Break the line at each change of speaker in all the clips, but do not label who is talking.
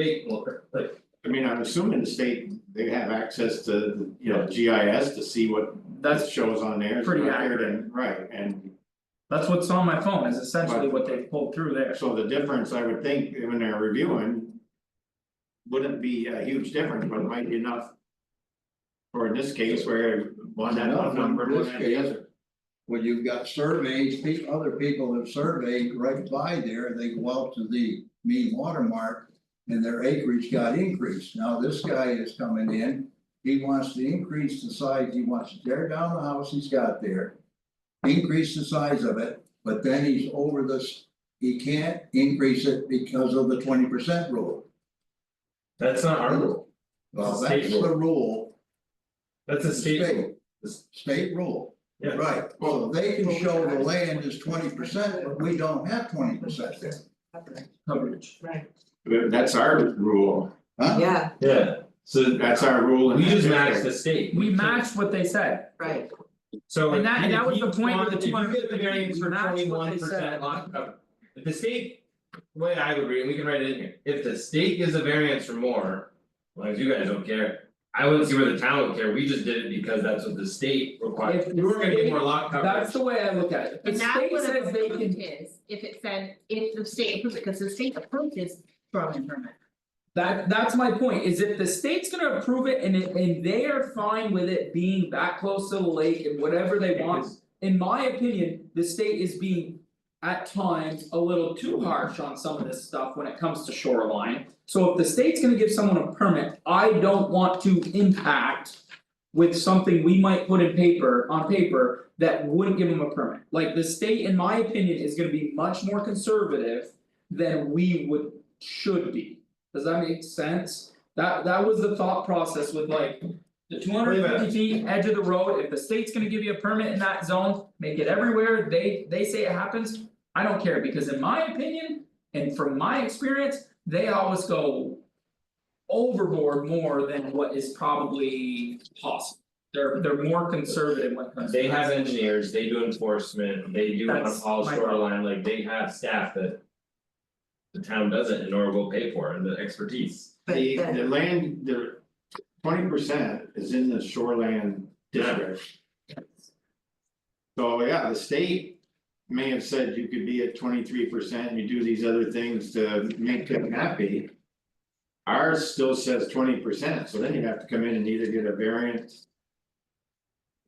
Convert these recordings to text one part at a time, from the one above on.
big more, but
I mean, I'm assuming the state, they have access to, you know, G I S to see what
that's
shows on there.
pretty
Right, and
that's what's on my phone is essentially what they pulled through there.
so the difference, I would think, when they're reviewing. Wouldn't be a huge difference, but might be enough. Or in this case where one that
Enough
one
in
number.
this
and-
case. When you've got surveys, pe- other people have surveyed right by there, they go out to the mean watermark. And their acreage got increased, now this guy is coming in, he wants to increase the size, he wants to tear down the house he's got there. Increase the size of it, but then he's over this, he can't increase it because of the twenty percent rule.
That's not our rule,
Well,
It's a state
that's the rule,
that's a state rule.
state, state rule.
Yeah.
Right, well, they can show the land is twenty percent, but we don't have twenty percent there,
Coverage.
But That's our rule,
huh?
Yeah,
Yeah, so
that's our rule. in
we
that
just
district.
match the state.
We
can't-
matched what they said.
right,
So
And
if
that- and
you-
that was
if
the
you
point with
want-
the
if you
250,
get the variance
we
for
matched what they
twenty one
said.
percent lot coverage. If the state, the way I would read, it, we can write it in here, if the state gives a variance for more, as long as you guys don't care. I wouldn't see where the town would care, we just did it because that's what the state requires,
If
we were gonna get
the
more lot coverage.
That's the way I look at it. The
And that's
state
what
says
an
they
approved
can,
is, if it said, if the state approved, because the state approved is shoreline permit.
that that's my point, is if the state's gonna approve it and it and they are fine with it being that close to the lake and whatever they want. In my opinion, the state is being at times a little too harsh on some of this stuff when it comes to shoreline. So if the state's gonna give someone a permit, I don't want to impact. With something we might put in paper, on paper, that wouldn't give them a permit, like the state, in my opinion, is gonna be much more conservative. Than we would, should be, does that make sense? That that was the thought process with like. The two hundred
Wait a
fifty
minute.
feet edge of the road, if the state's gonna give you a permit in that zone, make it everywhere, they they say it happens. I don't care, because in my opinion, and from my experience, they always go. Overboard more than what is probably possible, they're they're more conservative when it comes to.
They
that.
have engineers, they do enforcement, they do on
That's
all
my-
shoreline, like they have staff that. The town doesn't and nor will pay for and the expertise.
but
The
then-
the land, the twenty percent is in the shoreland district. So yeah, the state may have said you could be at twenty three percent, you do these other things to make them happy. Ours still says twenty percent, so then you have to come in and either get a variance.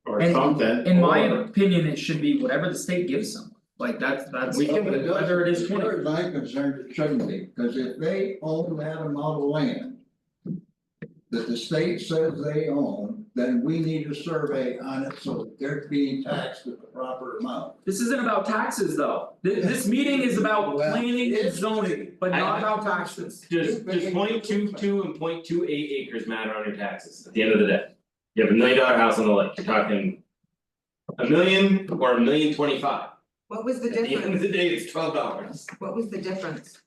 Or
And-
something,
In my
or-
opinion, it should be whatever the state gives them, like that's that's
We can-
whether it is
As
twenty.
far as I'm concerned, it shouldn't be, because if they own that amount of land. That the state says they own, then we need a survey on it, so that they're being taxed at the proper amount.
This isn't about taxes though, this this meeting is about
Well,
planning and
it's-
zoning, but
I-
not about taxes.
Does does point two two and point two eight acres matter on your taxes at the end of the day? You have a million dollar house on the lake, you're talking. A million or a million twenty five,
what was the
at the end of
difference,
the day, it's twelve dollars.
what was the difference?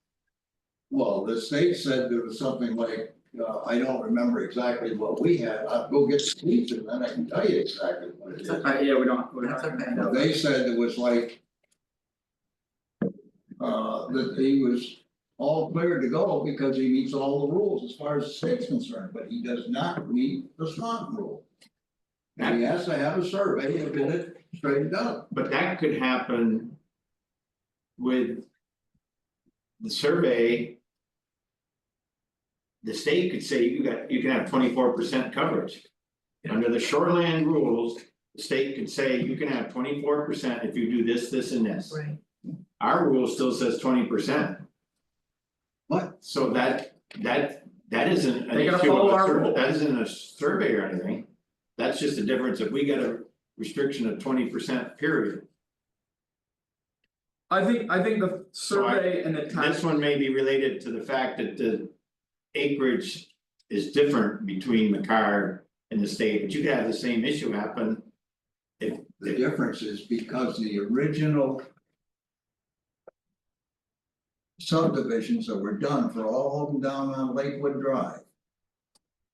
Well, the state said there was something like, uh, I don't remember exactly what we had, I'll go get Steve's and then I can tell you exactly what it is.
Uh, yeah, we don't, we're not.
That's okay.
Now, they said it was like. Uh, that he was all clear to go because he meets all the rules as far as the state's concerned, but he does not meet the slot rule. And he has to have a survey to get it straightened out.
But that could happen. With. The survey. The state could say you got, you can have twenty four percent coverage. Under the shoreland rules, the state could say you can have twenty four percent if you do this, this and this.
Right.
Our rule still says twenty percent.
What?
So that, that, that isn't an
They gotta
issue
follow
of a
our
survey,
rule.
that isn't a survey or anything. That's just a difference if we get a restriction of twenty percent period.
I think I think the survey and the
This
tax,
one may be related to the fact that the acreage is different between McCarr and the state, but you could have the same issue happen. If
The
if
difference is because the original. Subdivisions that were done for all of them down on Lakewood Drive.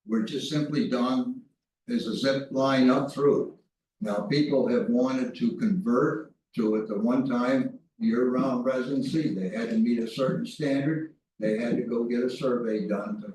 Were just simply done as a zip line up through. Now, people have wanted to convert to at the one time year-round residency, they had to meet a certain standard. They had to go get a survey done to